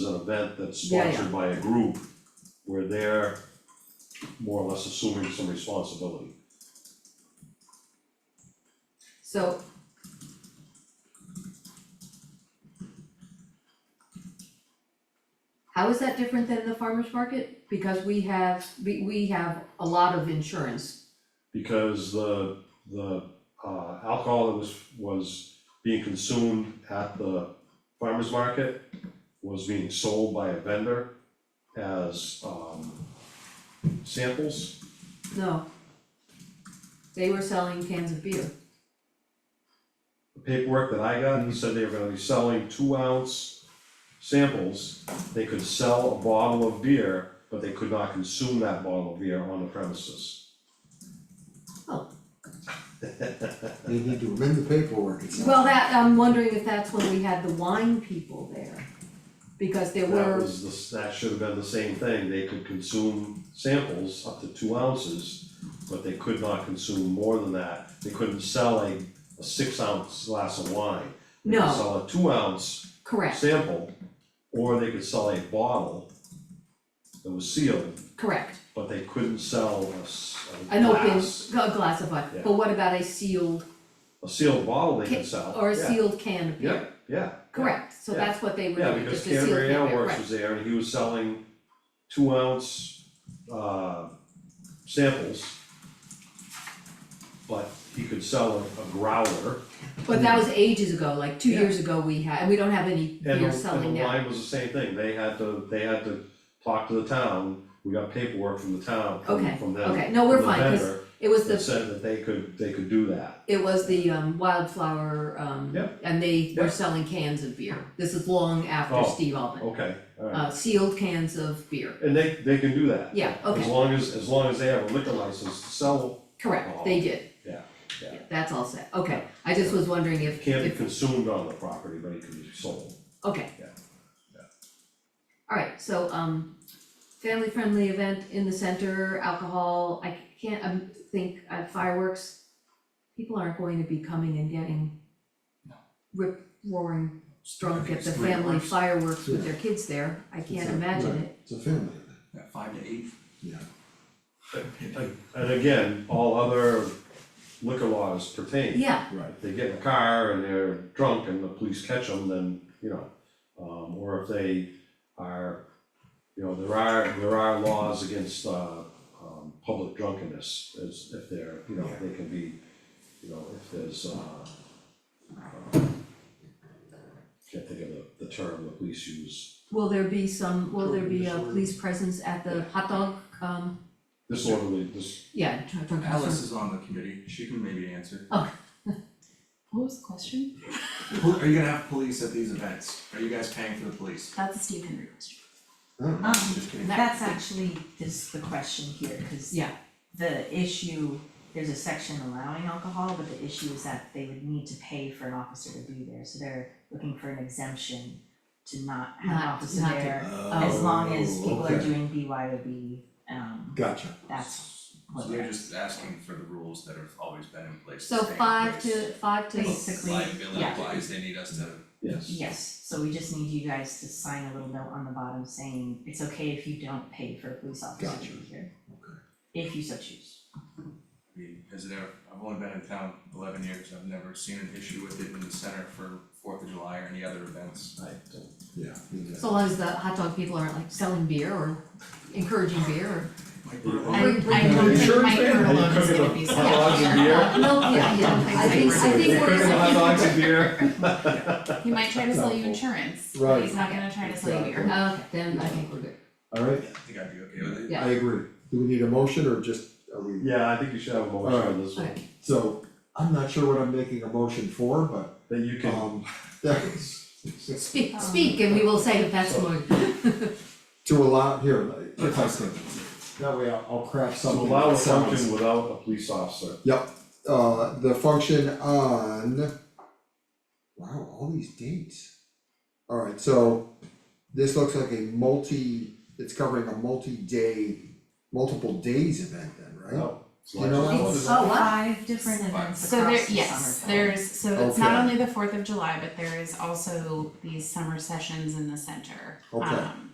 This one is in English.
an event that's Yeah, yeah. sponsored by a group where they're more or less assuming some responsibility. So. How is that different than the farmer's market? Because we have, we we have a lot of insurance, Because the, the uh, alcohol that was, was being consumed at the farmer's market was being sold by a vendor as, um, samples. no. They were selling cans of beer, The Paperwork that I got, he said they were gonna be selling two ounce samples. They could sell a bottle of beer, but they could not consume that bottle of beer on the premises. They need to amend the paperwork, it's not. well, that, I'm wondering if that's when we had the wine people there. Because there That were, was the, s- that should have been the same thing, they could consume samples up to two ounces, but they could not consume more than that, they couldn't sell a, a six ounce glass of wine. They could No. Sell a two ounce correct, sample, or they could sell a bottle that was sealed, correct, but they couldn't sell a, s- a an open, glass. a glass of wine, Yeah. but what about a sealed A sealed bottle they ca- could sell, or a yeah. sealed can of beer? Yeah, yeah. yeah. Correct, so yeah. that's what they were Yeah, doing, because just a sealed can of Canterbury beer, Airworks right. was there and he was selling two ounce uh samples. But he could sell a a growler But that was ages ago, like two Yeah. years ago we had, and we don't have any and the beer selling and the now. wine was the same thing, they had to, they had to talk to the town, we got paperwork from the town, from Okay, from them, okay, no, we're from the fine, cause vendor it was that the, said that they could, they could do that. it was the um wildflower, um, Yeah. and they were Yeah. selling cans of beer. This is long after Oh, Steve Alvin, Okay, alright, uh, sealed cans of beer. and they they can do that, Yeah, as okay, long as, as long as they have a liquor license to sell, correct, they did. Yeah, yeah. That's all set, okay, I just was wondering if, can't be if, consumed on the property, but it can be sold. okay. Yeah, yeah. Alright, so um, family friendly event in the center, alcohol, I can't, um think uh, fireworks. People aren't going to be coming and getting rip roaring drunk at the family Fireworks. fireworks with their kids there, I can't It's a- imagine right, it. It's a family, Yeah, five to eight. yeah. And again, all other liquor laws pertain. Yeah, Right. If they get in a car and they're drunk and the police catch them, then, you know, um, or if they are, you know, there are, there are laws against, uh, um, public drunkenness, as if they're, you know, they can be, you know, if there's, uh, uh, can't think of the, the term the police use, will there be some, will there be a police presence at the hot dog, um, disorderly, dis- yeah, drunk drunk Alice is on the committee, she can maybe answer. What was the question? Who- Are you gonna have police at these events? Are you guys paying for the police? That's a Steve Henry question. Oh, Um, Just kidding. that's actually, this the question here, cause Yeah. the issue, there's a section allowing alcohol, but the issue is that they would need to pay for an officer to be there, so they're looking for an exemption to not have an Not- officer not to- there, as long as people are okay. doing BYOB, um, Gotcha. that's So what they're just asking for the rules that have always been in place, to So stay in five place. to, five to. Basically, yeah. Liability wise, they need us to, yes. Yes, so we just need you guys to sign a little note on the bottom saying it's okay if you don't pay for a police officer to be here. If you so choose. I mean, has it ever, I've only been in town eleven years, I've never seen an issue with it in the center for Fourth of July or any other events. I don't, Yeah, So long as the hot dog people aren't like selling beer or encouraging beer or. Like, Yeah. we're- I Bring- bring I them don't in. think Sure, my man. turtle Are you is cooking the gonna be hot selling dogs and beer. No, yeah, yeah, I think, I think we're. Cooking hot dogs and beer. He might try to sell you insurance, but Right. he's not gonna try to sell you beer. Exactly. Okay, then I think we're good. alright, I think I'd be okay with it. Yeah. I agree. Do we need a motion or just, are we, Yeah, I think you should have a motion on this one, Alright, so, I'm not sure what I'm making a motion for, but, that you can, um, that is, speak, speak and we will say if that's more. to allow, here, if I can. That way I'll, I'll craft to something allow a that sounds. function without a police officer. uh, the function on. Wow, all these dates. Alright, so this looks like a multi, it's covering a multi-day, multiple days event then, right? No, You know Like- what? It's Oh, wow. five different events So across the summer. there, yes, there's, so it's Okay. not only the Fourth of July, but there is also these summer sessions in the center. Okay. Um,